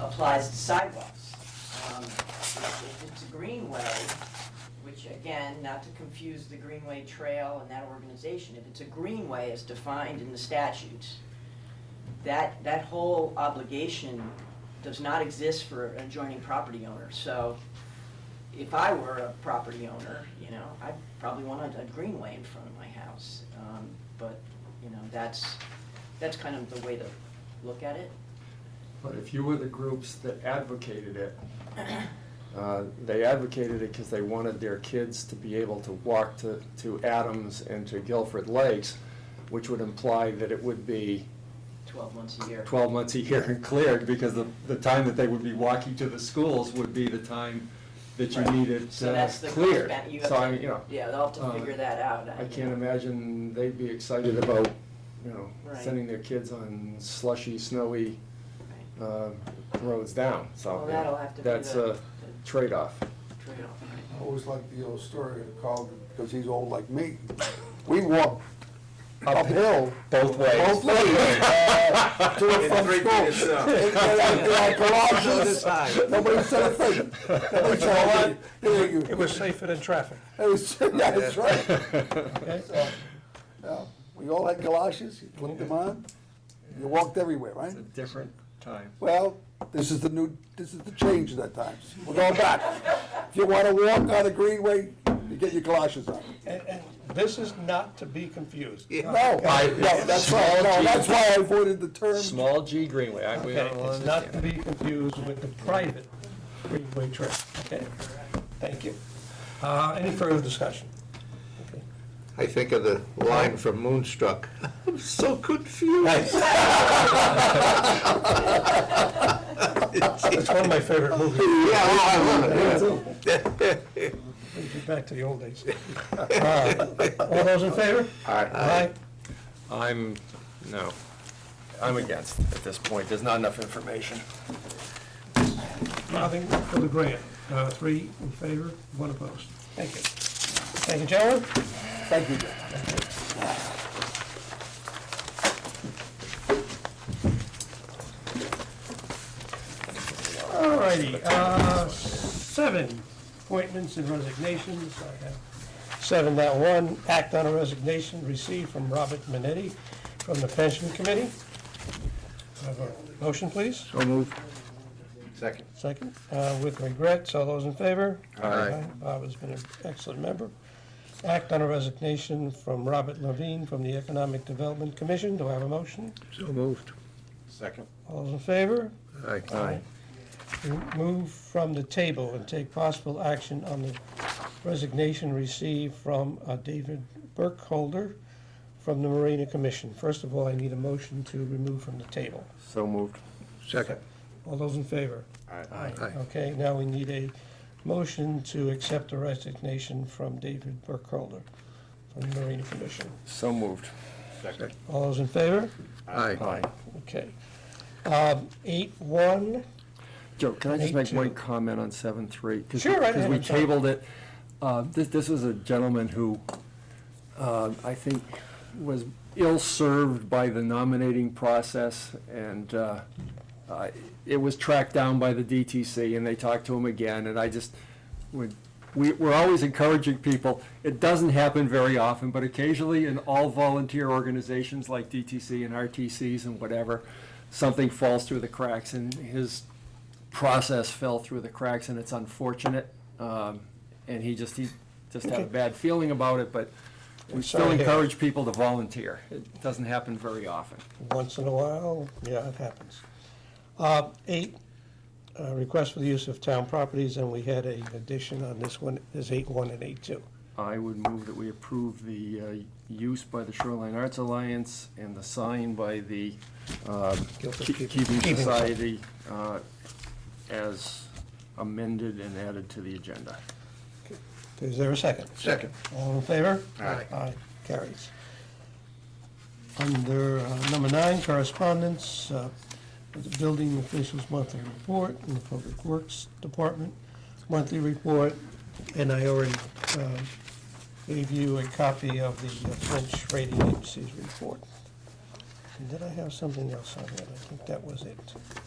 applies to sidewalks. Um, If it's a greenway, which again, not to confuse the Greenway Trail and that organization, if it's a greenway as defined in the statutes, that, that whole obligation does not exist for an adjoining property owner. So if I were a property owner, you know, I'd probably want a, a greenway in front of my house. Um, But, you know, that's, that's kind of the way to look at it. But if you were the groups that advocated it, uh, they advocated it because they wanted their kids to be able to walk to, to Adams and to Guilford Lakes, which would imply that it would be 12 months a year. twelve months a year and cleared, because the, the time that they would be walking to the schools would be the time that you Right. needed So uh, that's the cleared. cost ben- you have So I to- mean, you know, Yeah, they'll have to Uh, figure that out. I can't imagine they'd be excited about, you know, Right. sending their kids on slushy, snowy Right. uh, roads down, so. Well, that'll have to be That's the- a trade-off. the trade-off. I always like the old story of Carl, because he's old like me. We walk uphill. Both ways. Both ways, uh, to and In from three feet of school. snow. And- and I- and I garage this time. Nobody said a thing. Nobody said a It thing. was safer than traffic. It was, that's right. So, yeah, We all had galoshes, you put them on, you walked everywhere, right? It's a different time. Well, this is the new, this is the change at that time. We're going back. If you want to walk on a greenway, you get your galoshes on. And, and this is not to be confused. No, no, that's why, no, that's why I avoided the term. Small G Greenway, I, we Okay, all it's not to understand. be confused with the private freeway trail, okay? Thank you. Uh, any further discussion? Okay. I think of the line from Moonstruck. I'm so confused. It's one of my favorite movies, Yeah, oh, I love it. brings me back to the old days. Uh, All those in favor? Aye. I'm, no, I'm against at this point, there's not enough information. Nothing for the grant. Uh, three in favor, one opposed. Thank you. Thank you, gentlemen. Thank you, Jim. All righty, uh, seven, appointments and resignations. I have Seven dot one, act on a resignation received from Robert Minetti from the Pension Committee. I Have a motion, please? So moved. Second. Second, uh, with regrets, all those in favor? Aye. Bob has been an excellent member. Act on a resignation from Robert Levine from the Economic Development Commission. Do I have a motion? So moved. Second. All those in favor? Aye. Move from the table and take possible action on the resignation received from uh, David Burkholder from the Marina Commission. First of all, I need a motion to remove from the table. So moved. Second. All those in favor? Aye. Okay, now we need a motion to accept the resignation from David Burkholder from the Marina Commission. So moved. Second. All those in favor? Aye. Okay. Um, Eight, one, Joe, can I just make Eight one two. comment on seven three? Sure, right Because ahead, we I'm sorry. tabled it. Uh, This, this was a gentleman who, uh, I think, was ill-served by the nominating process, and uh, uh, it was tracked down by the DTC, and they talked to him again, and I just, would, we, we're always encouraging people. It doesn't happen very often, but occasionally in all volunteer organizations like DTC and RTCs and whatever, something falls through the cracks, and his process fell through the cracks, and it's unfortunate. Um, and he just, he just had a bad feeling about it, but we still Sorry to hear. encourage people to volunteer. It doesn't happen very often. once in a while, yeah, it happens. Uh, Eight, uh, request for the use of town properties, and we had an addition on this one, is eight one and eight two. I would move that we approve the uh, use by the Shoreline Arts Alliance and the sign by the uh, Ke- Guilford Keeping- Keeping Keeping Society uh, as amended and added to the agenda. Is there a second? Second. All in favor? Aye. Aye, carries. Under uh, number nine, correspondence, uh, the building officials' monthly report and the Public Works Department monthly report, and I already uh, gave you a copy of the uh, French rating agency's report. And did I have something else on that? I think that was it.